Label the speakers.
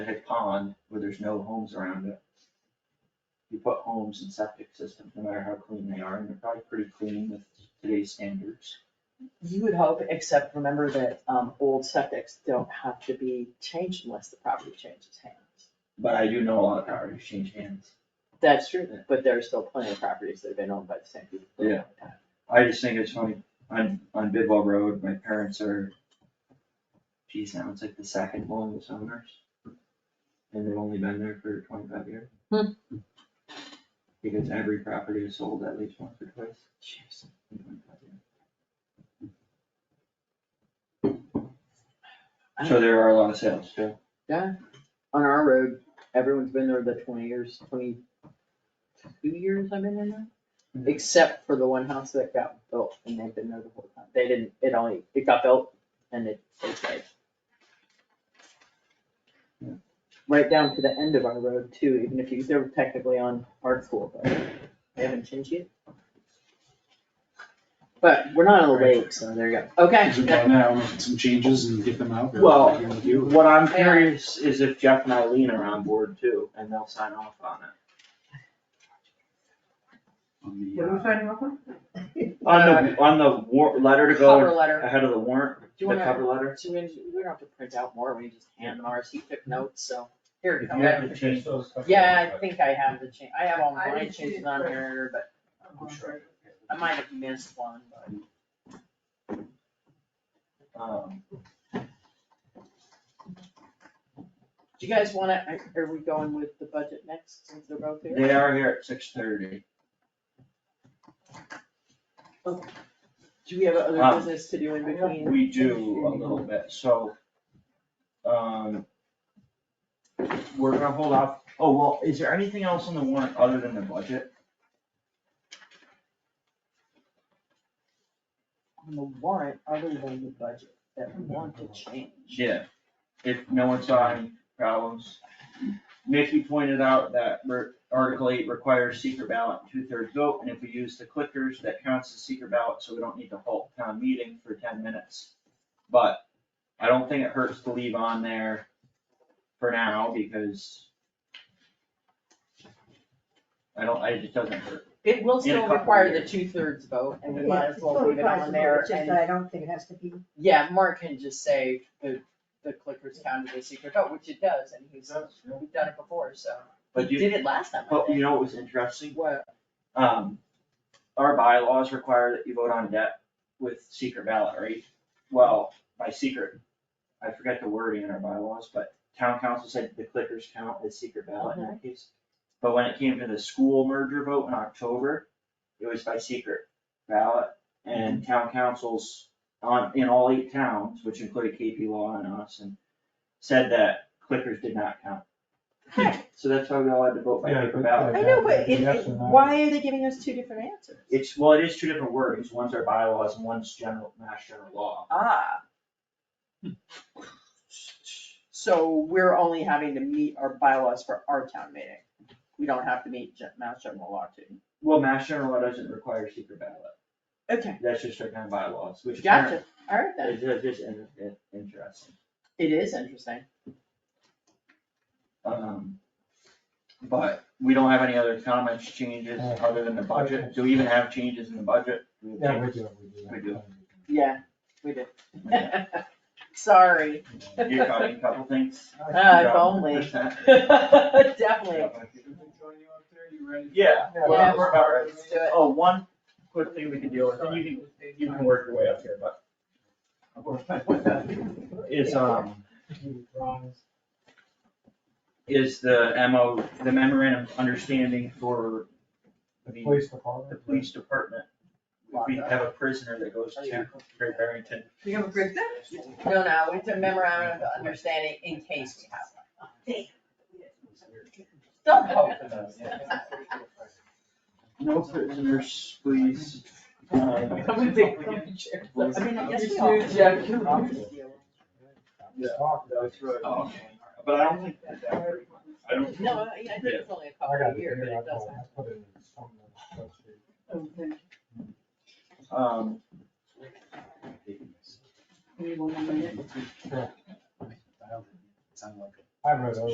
Speaker 1: a pond where there's no homes around it. You put homes in septic systems, no matter how clean they are, and they're probably pretty clean with today's standards.
Speaker 2: You would hope, except remember that, um, old septics don't have to be changed unless the property changes hands.
Speaker 1: But I do know a lot of properties change hands.
Speaker 2: That's true, but there are still plenty of properties that have been owned by the same people. for a long time.
Speaker 1: I just think it's funny, on, on Bidwell Road, my parents are, geez, now it's like the second longest owners. And they've only been there for twenty-five years.
Speaker 2: Hmm.
Speaker 1: Because every property is sold at least once or twice.
Speaker 2: Jeez.
Speaker 1: in 25 years. So there are a lot of sales still.
Speaker 2: On our road, everyone's been there the twenty years, twenty-two years I've been in there,
Speaker 1: Mhm.
Speaker 2: except for the one house that got built and they've been there the whole time. They didn't, it only, it got built and it, it stayed.
Speaker 1: Yeah.
Speaker 2: Right down to the end of our road too, even if you, they're technically on hard school, but they haven't changed yet. But we're not on the lake, so there you go. Okay.
Speaker 3: Is it done now, make some changes and get them out? or
Speaker 1: Well,
Speaker 3: what you wanna do?
Speaker 1: what I'm curious is if Jeff and Eileen are on board too, and they'll sign off on it.
Speaker 3: On the,
Speaker 4: What are we
Speaker 3: uh,
Speaker 4: signing off on?
Speaker 1: On the, on the war, letter to go
Speaker 2: Cover letter.
Speaker 1: ahead of the warrant,
Speaker 2: Do you
Speaker 1: the
Speaker 2: wanna-
Speaker 1: cover letter?
Speaker 2: So we, we don't have to print out more, we just hand them ours, he took notes, so here it
Speaker 1: If you have
Speaker 2: comes.
Speaker 1: to change those.
Speaker 2: Yeah, I think I have the change, I have all
Speaker 4: I
Speaker 2: my
Speaker 4: didn't see
Speaker 2: changes
Speaker 4: it
Speaker 2: on
Speaker 4: first.
Speaker 2: here, but I might have missed one, but.
Speaker 1: Um,
Speaker 2: Do you guys wanna, are- are we going with the budget next since they're both here?
Speaker 1: They are here at six thirty.
Speaker 2: Do we have other
Speaker 1: Um,
Speaker 2: business to do in between?
Speaker 1: We do a little bit, so. Um. We're gonna hold off, oh, well, is there anything else on the warrant other than the budget?
Speaker 2: On the warrant, other than the budget, that we want to change.
Speaker 1: Yeah. If no one saw any problems. Nikki pointed out that re- Article eight requires secret ballot and two-thirds vote, and if we use the clickers, that counts as secret ballot, so we don't need to halt town meeting for ten minutes. But I don't think it hurts to leave on there for now, because I don't, I, it doesn't hurt.
Speaker 2: It will
Speaker 1: In a
Speaker 2: still
Speaker 1: couple
Speaker 2: require the
Speaker 1: years.
Speaker 2: two-thirds vote, and we
Speaker 1: Yeah,
Speaker 2: might as well leave it on there,
Speaker 4: It's just
Speaker 2: and
Speaker 4: that I don't think it has to be,
Speaker 2: Yeah, Mark can just say the, the clicker's counted as secret vote, which it does, and he's, we've done it before, so.
Speaker 1: But
Speaker 2: We
Speaker 1: you,
Speaker 2: Did it last time, I
Speaker 1: but you
Speaker 2: think.
Speaker 1: know what was interesting?
Speaker 2: What,
Speaker 1: Um, our bylaws require that you vote on debt with secret ballot, right? Well, by secret, I forget the wording in our bylaws, but town council said the clickers count as secret ballot in that case. But when it came to the school merger vote in October, it was by secret ballot and town councils on, in all eight towns, which included KP Law and us, and said that clickers did not count. So that's why we all had to vote by
Speaker 5: Yeah,
Speaker 1: paper
Speaker 5: but-
Speaker 1: ballot.
Speaker 2: I know, but it,
Speaker 5: Yes
Speaker 2: it-
Speaker 5: or no?
Speaker 2: why are they giving us two different answers?
Speaker 1: It's, well, it is two different words, one's our bylaws and one's general, mass general law.
Speaker 2: Ah. So we're only having to meet our bylaws for our town meeting. We don't have to meet gen- Mass General Law too.
Speaker 1: Well, mass general law doesn't require secret ballot,
Speaker 2: Okay,
Speaker 1: that's just our kind of bylaws, which.
Speaker 2: gotcha, alright then,
Speaker 1: It's just- just in- in- interesting.
Speaker 2: it is interesting.
Speaker 1: Um, but we don't have any other comments, changes, other than the budget, do we even have changes in the budget?
Speaker 5: Yeah, we do, we do.
Speaker 1: We do.
Speaker 2: Yeah, we did. Sorry.
Speaker 1: You caught me a couple things.
Speaker 2: Ah, if only. Definitely.
Speaker 1: Yeah,
Speaker 2: Yeah,
Speaker 1: well, we're about right.
Speaker 2: Let's do it.
Speaker 1: Oh, one quick thing we can deal with, and you can, you can work your way up here, but. Is, um. is the MO, the memorandum of understanding for
Speaker 5: The police
Speaker 1: the
Speaker 5: department.
Speaker 1: police department. We have a prisoner that goes to Great Barrington.
Speaker 4: you have a breakdown?
Speaker 2: No, no, it's a memorandum of understanding in case we have one. Don't hope for those.
Speaker 1: No prisoners, please. Um,
Speaker 2: I'm gonna take comfy chairs. I mean, I guess we all.
Speaker 4: Yeah.
Speaker 1: Yeah.
Speaker 5: Talk,
Speaker 1: that's right. But I don't think that that pretty much, I don't.
Speaker 2: No, I I think it's only a
Speaker 5: I
Speaker 2: couple
Speaker 5: got
Speaker 2: of
Speaker 5: the
Speaker 2: years, but
Speaker 5: beer, I
Speaker 2: it does
Speaker 5: I put it in some of the spreadsheet.
Speaker 1: Um,
Speaker 5: I read it.